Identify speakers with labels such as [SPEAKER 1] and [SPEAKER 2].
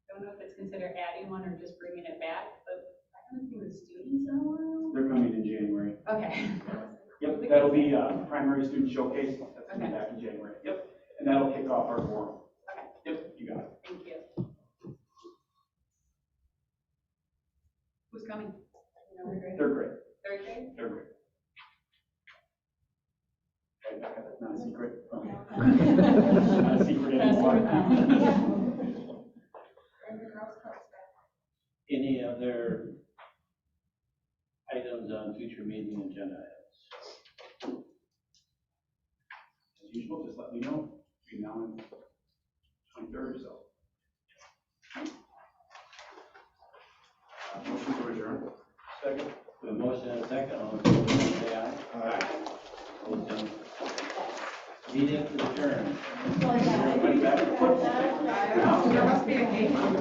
[SPEAKER 1] don't know if it's considered adding one or just bringing it back, but I haven't seen the students in a while.
[SPEAKER 2] They're coming in January.
[SPEAKER 1] Okay.
[SPEAKER 2] Yep, that'll be uh, primary student showcase, that's coming back in January. Yep, and that'll kick off our forum.
[SPEAKER 1] Okay.
[SPEAKER 2] Yep, you got it.
[SPEAKER 1] Thank you. Who's coming?
[SPEAKER 2] Third grade,
[SPEAKER 1] Third grade?
[SPEAKER 2] third grade. Right, Becca, that's not a secret.
[SPEAKER 1] Third
[SPEAKER 2] Not a secret anymore.
[SPEAKER 1] girls club's back.
[SPEAKER 3] Any other items on future meeting agenda items?
[SPEAKER 2] As usual, just let me know between now and twenty-third or so. Uh, Motion to adjourn.
[SPEAKER 3] Second. A motion and a second, all in favor, say aye. Opposed, no. Meeting adjourned.
[SPEAKER 2] Everybody back?
[SPEAKER 1] There must be a game.